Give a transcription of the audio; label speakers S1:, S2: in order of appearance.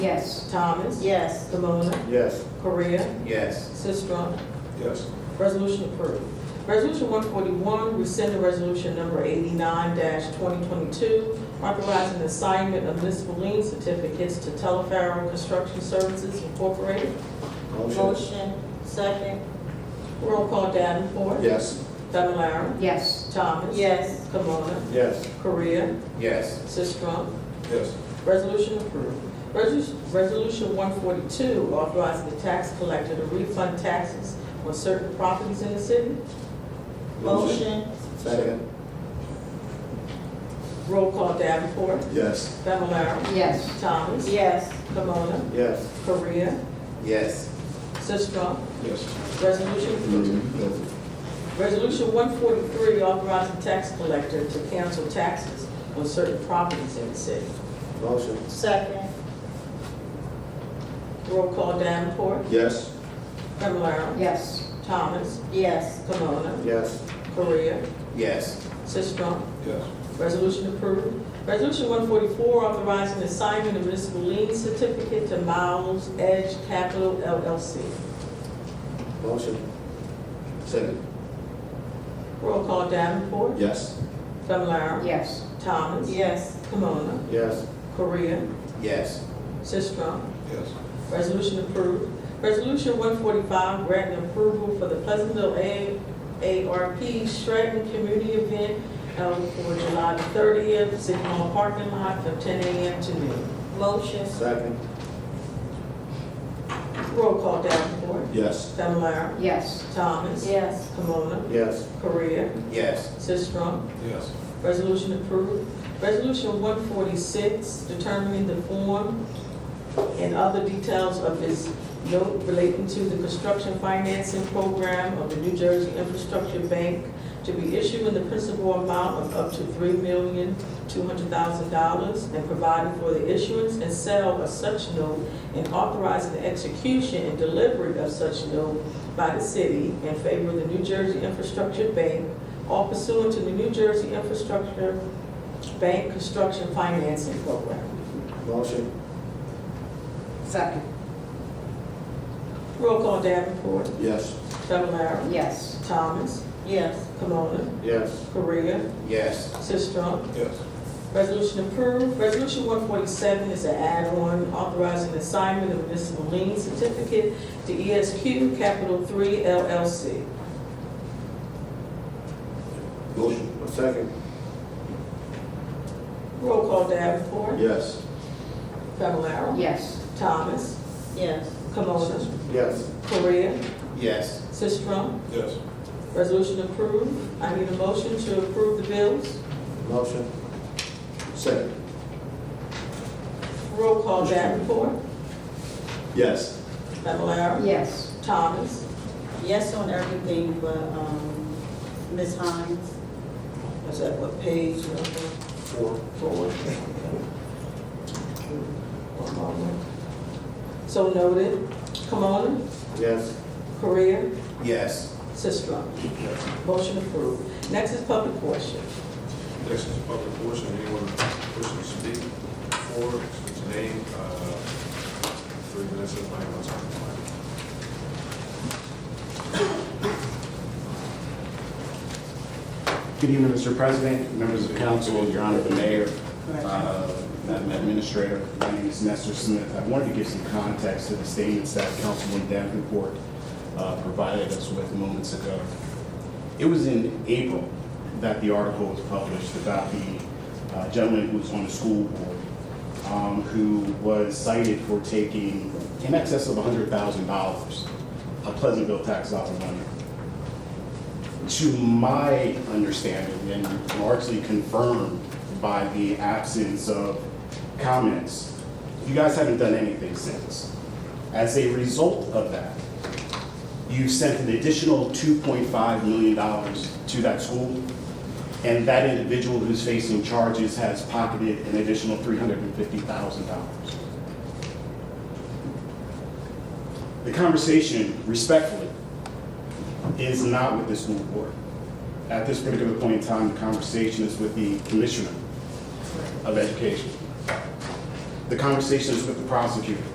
S1: Yes.
S2: Thomas.
S1: Yes.
S2: Camona.
S3: Yes.
S2: Correa.
S3: Yes.
S2: Sistrum.
S3: Yes.
S2: Resolution approved. Resolution one forty-one, rescinding resolution number eighty-nine twenty twenty-two, authorizing the assignment of municipal lien certificates to Telefaro Construction Services Incorporated.
S3: Motion.
S1: Motion. Second.
S2: Roll call Davenport.
S3: Yes.
S2: Fablelaro.
S1: Yes.
S2: Thomas.
S1: Yes.
S2: Camona.
S3: Yes.
S2: Correa.
S3: Yes.
S2: Sistrum.
S3: Yes.
S2: Resolution approved. Resolu- Resolution 142, authorizing the tax collector to refund taxes on certain properties in the city.
S1: Motion.
S3: Second.
S2: Roll call Davenport,
S3: Yes.
S2: Fablelaro,
S1: Yes.
S2: Thomas,
S1: Yes.
S2: Camona,
S3: Yes.
S2: Korea,
S3: Yes.
S2: Sistrum.
S3: Yes.
S2: Resolution approved. Resolution 143, authorizing tax collector to cancel taxes on certain properties in the city.
S3: Motion.
S1: Second.
S2: Roll call Davenport,
S3: Yes.
S2: Fablelaro,
S1: Yes.
S2: Thomas,
S1: Yes.
S2: Camona,
S3: Yes.
S2: Korea,
S3: Yes.
S2: Sistrum.
S3: Yes.
S2: Resolution approved. Resolution 144, authorizing the assignment of municipal lien certificate to Miles Edge Capital LLC.
S3: Motion. Second.
S2: Roll call Davenport,
S3: Yes.
S2: Fablelaro,
S1: Yes.
S2: Thomas,
S1: Yes.
S2: Kimona,
S3: Yes.
S2: Korea,
S3: Yes.
S2: Sistrum.
S3: Yes.
S2: Resolution approved. Resolution 145, granting approval for the Pleasantville A- ARP Stratton Community Event held for July 30th, City Hall parking lot from 10 a.m. to noon.
S1: Motion.
S3: Second.
S2: Roll call Davenport,
S3: Yes.
S2: Fablelaro,
S1: Yes.
S2: Thomas,
S1: Yes.
S2: Kimona,
S3: Yes.
S2: Korea,
S3: Yes.
S2: Sistrum.
S3: Yes.
S2: Resolution approved. Resolution 146, determining the form and other details of this note relating to the construction financing program of the New Jersey Infrastructure Bank to be issued in the principal amount of up to $3,200,000 and providing for the issuance and sale of such note and authorizing the execution and delivery of such note by the city in favor of the New Jersey Infrastructure Bank all pursuant to the New Jersey Infrastructure Bank Construction Financing Program.
S3: Motion.
S1: Second.
S2: Roll call Davenport,
S3: Yes.
S2: Fablelaro,
S1: Yes.
S2: Thomas,
S1: Yes.
S2: Camona,
S3: Yes.
S2: Correa,
S3: Yes.
S2: Sistrum.
S3: Yes.
S2: Resolution approved. Resolution 147 is an add-on authorizing assignment of municipal lien certificate to ESQ Capital 3 LLC.
S3: Motion. Second.
S2: Roll call Davenport,
S3: Yes.
S2: Fablelaro,
S1: Yes.
S2: Thomas,
S1: Yes.
S2: Camona,
S3: Yes.
S2: Correa,
S3: Yes.
S2: Sistrum.
S3: Yes.
S2: Resolution approved. I need a motion to approve the bills.
S3: Motion. Second.
S2: Roll call Davenport,
S3: Yes.
S2: Fablelaro,
S1: Yes.
S2: Thomas,
S4: Yes on everything but, um, Ms. Hines.
S2: is that what page number
S3: Four.
S2: four? One moment. So noted. Camona,
S3: Yes.
S2: Korea,
S3: Yes.
S2: Sistrum. Motion approved. Next is public portion.
S5: Next is public portion, anyone wishing to speak for, his name, uh, three minutes of my own time.
S6: Good evening, Mr. President, members of council, your honor, the mayor, uh, Madam Administrator. My name is Nestor Smith. I wanted to give some context to the statements that Councilwoman Davenport uh, provided us with moments ago. It was in April that the article was published about the uh, gentleman who was on the school board um, who was cited for taking in excess of $100,000 of Pleasantville tax dollar money to my understanding, and largely confirmed by the absence of comments, you guys haven't done anything since. As a result of that, you sent an additional $2.5 million to that school, and that individual who's facing charges has pocketed an additional $350,000 the conversation, respectfully, is not with this school board. At this particular point in time, the conversation is with the Commissioner of Education. the conversations with the prosecutor.